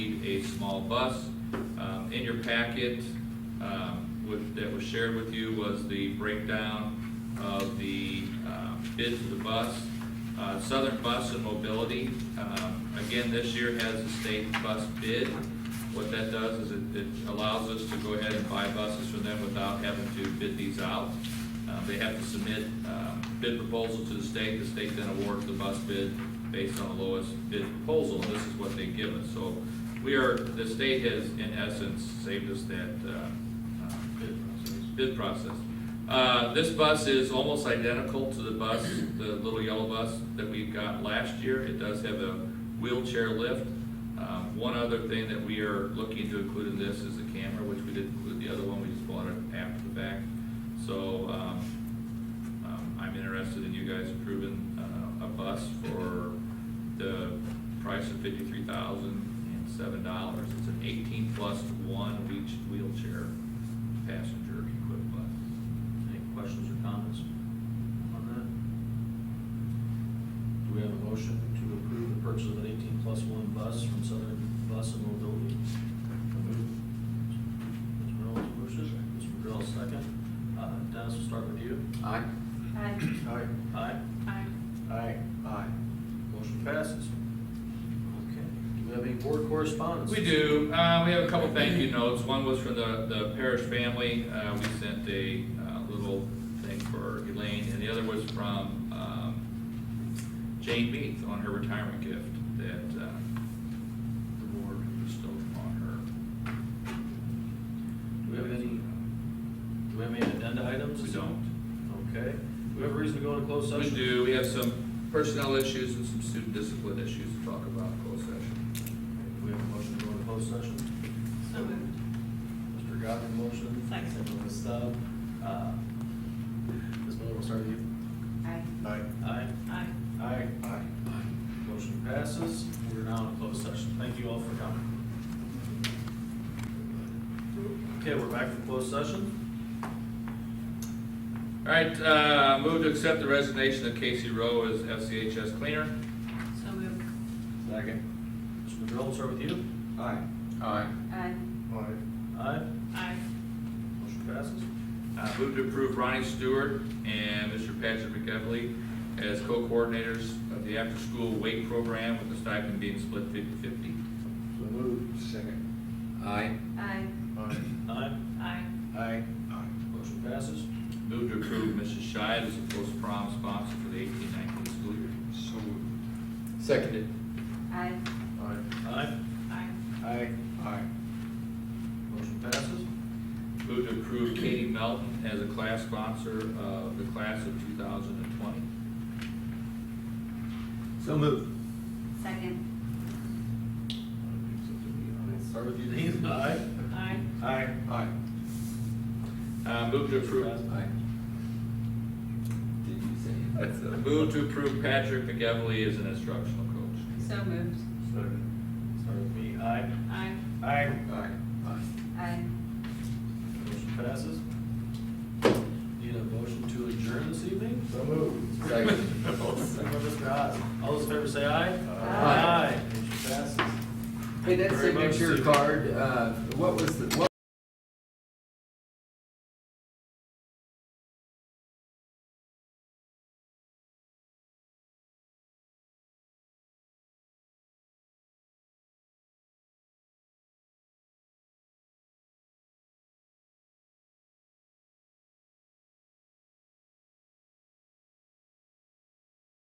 a small bus. Um, In your packet, um, with- that was shared with you was the breakdown of the um, bid for the bus. Uh, Southern Bus and Mobility, um, again, this year has a state bus bid. What that does is it- it allows us to go ahead and buy buses from them without having to bid these out. Um, They have to submit um, bid proposal to the state, the state then awards the bus bid based on the lowest bid proposal, and this is what they give us. So we are, the state has, in essence, saved us that uh, uh, bid process. Uh, This bus is almost identical to the bus, the little yellow bus that we got last year. It does have a wheelchair lift. Um, One other thing that we are looking to include in this is the camera, which we didn't include the other one, we just bought it after the fact. So um, um, I'm interested in you guys approving uh, a bus for the price of fifty-three thousand and seven dollars. It's an eighteen plus one wheel- wheelchair passenger equipped bus. Any questions or comments on that? Do we have a motion to approve the purchase of an eighteen plus one bus from Southern Bus and Mobility? Mr. Reynolds motion, Mr. McGrail second. Uh, Dennis, we'll start with you. Aye. Aye. Aye. Aye. Aye. Aye. Aye. Motion passes. Okay. Do we have any board correspondence? We do, uh, we have a couple thank you notes, one was from the, the parish family, uh, we sent a, uh, little thing for Elaine, and the other was from, um, Jane Meath on her retirement gift that, uh, the board bestowed upon Do we have any, do we have any addenda items? her. We don't. Okay. Do we have a reason to go into closed We session? do, we have some personnel issues and some student discipline issues to talk about in closed session. Do we have a motion to go into closed session? So moved. Mr. Godwin, motion. Second. Ms. Stubb. Uh, Ms. Miller, we'll start with you. Aye. Aye. Aye. Aye. Aye. Aye. Motion passes. We're now in closed session. Thank you all for coming. Okay, we're back for closed session. All right, uh, move to accept the resignation of Casey Rowe as FCHS cleaner. So moved. Second. Mr. McDermott, we'll start with you. Aye. Aye. Aye. Aye. Aye. Aye. Motion passes. Uh, move to approve Ronnie Stewart and Mr. Patrick McEvely as co-coordinators of the after-school weight program with the stipend being split fifty-fifty. So moved. Second. Aye. Aye. Aye. Aye. Aye. Aye. Aye. Motion passes. Move to approve Mrs. Scheid as a post-prom sponsor for the eighteen nineteen school year. So moved. Seconded. Aye. Aye. Aye. Aye. Aye. Aye. Motion passes. Move to approve Katie Melton as a class sponsor of the class of two thousand and twenty. So moved. Second. Start with you, Dean. Aye. Aye. Aye. Aye. Uh, move to approve, Passes. Aye. Did you say? move to approve Patrick McEvely as an instructional coach. So moved. Second. Start with me. Aye. Aye. Aye. Aye. Aye. Aye. Motion passes. Need a motion to adjourn this evening? So moved. Second. Second by Mr. Haas. All those in favor say aye. Aye. Motion passes. Hey, that Very much signature so. card, uh, what was the, what